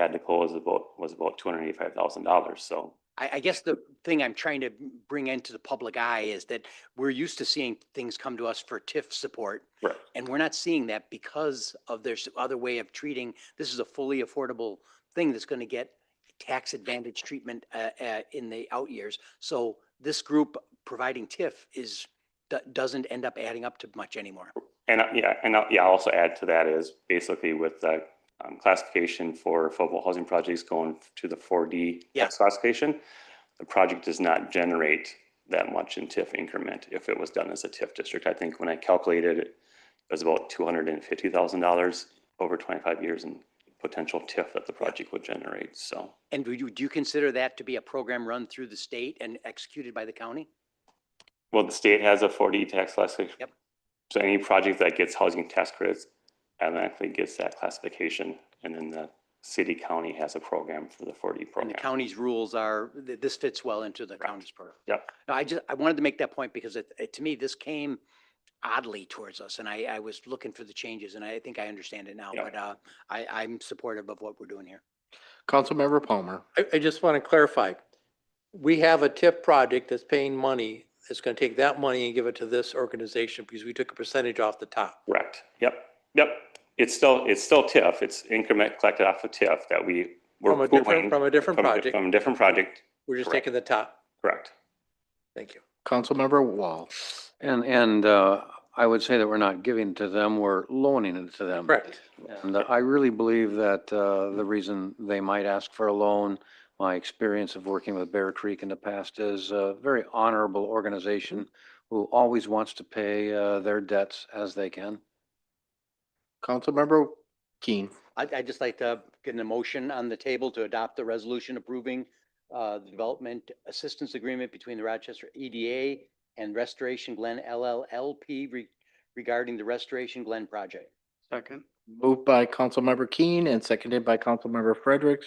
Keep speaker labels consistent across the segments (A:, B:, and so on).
A: had to close about, was about two hundred eighty-five thousand dollars, so.
B: I, I guess the thing I'm trying to bring into the public eye is that we're used to seeing things come to us for TIF support.
A: Right.
B: And we're not seeing that because of there's other way of treating, this is a fully affordable thing that's going to get tax advantage treatment uh, uh, in the out years. So this group providing TIF is, do- doesn't end up adding up to much anymore.
A: And, uh, yeah, and, uh, yeah, I'll also add to that is basically with the um, classification for affordable housing projects going to the four D
B: Yeah.
A: classification, the project does not generate that much in TIF increment if it was done as a TIF district. I think when I calculated it, it was about two hundred and fifty thousand dollars over twenty-five years in potential TIF that the project would generate, so.
B: And do you, do you consider that to be a program run through the state and executed by the county?
A: Well, the state has a 4D tax classification.
B: Yep.
A: So any project that gets housing tax credits automatically gets that classification. And then the city county has a program for the 4D
B: And the
A: program.
B: county's rules are, th- this fits well into the county's program.
A: Yep.
B: No, I just, I wanted to make that point because it, it- to me, this came oddly towards us and I, I was looking for the changes and I think I understand it now,
A: Yeah.
B: but, uh, I, I'm supportive of what we're doing here.
C: Councilmember Palmer.
D: I, I just want to clarify. We have a TIP project that's paying money, that's going to take that money and give it to this organization because we took a percentage off the top.
A: Correct. Yep, yep. It's still, it's still TIF. It's increment collected off of TIF that we were
D: From a different,
A: pooling
D: from a different
A: from a di-
D: project,
A: From a different project,
D: we're just
A: correct.
D: taking the top.
A: correct.
D: Thank you.
C: Councilmember Wall.
E: And, and uh, I would say that we're not giving to them, we're loaning it to them.
D: Correct.
E: And I really believe that uh, the reason they might ask for a loan, my experience of working with Bear Creek in the past is a very honorable organization who always wants to pay uh, their debts as they can.
C: Councilmember Keen.
B: I, I'd just like to get an motion on the table to adopt the resolution approving, uh, the development assistance agreement between the Rochester EDA and Restoration Glen LLLP re- regarding the Restoration Glen project.
C: Second. Moved by Councilmember Keen and seconded by Councilmember Fredericks.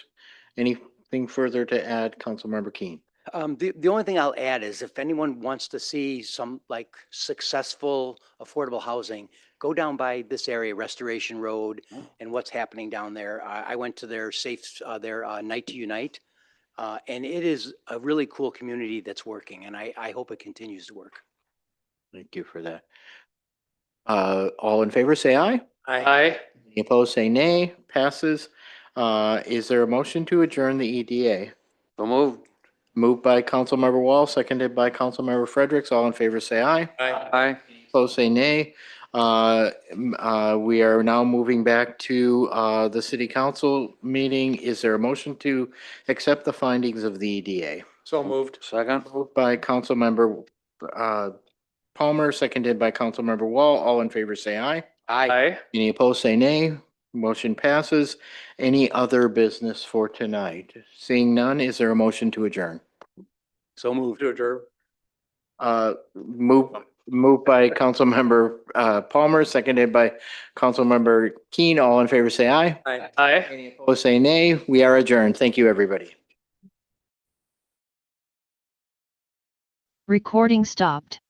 C: Anything further to add, Councilmember Keen?
B: Um, the, the only thing I'll add is if anyone wants to see some like successful affordable housing, go down by this area, Restoration Road and what's happening down there. I, I went to their safe, uh, their, uh, Night to Unite. Uh, and it is a really cool community that's working and I, I hope it continues to work.
C: Thank you for that. Uh, all in favor, say aye.
D: Aye.
C: Any Opposed, say nay. Passes. Uh, is there a motion to adjourn the EDA?
E: So move.
C: Moved by Councilmember Wall, seconded by Councilmember Fredericks. All in favor, say aye.
D: Aye.
E: Aye.
C: Opposed, say nay. Uh, m- uh, We are now moving back to uh, the city council meeting. Is there a motion to accept the findings of the EDA?
D: So moved.
E: Second.
C: Moved by Councilmember uh, Palmer, seconded by Councilmember Wall. All in favor, say aye.
D: Aye.
C: Any opposed, say nay. Motion passes. Any other business for tonight? Seeing none, is there a motion to adjourn?
B: So moved.
D: To adjourn.
C: Uh, move, moved by Councilmember, uh, Palmer, seconded by Councilmember Keen. All in favor, say aye.
D: Aye.
C: Aye. Any opposed, say nay. We are adjourned. Thank you, everybody.
F: Recording stopped.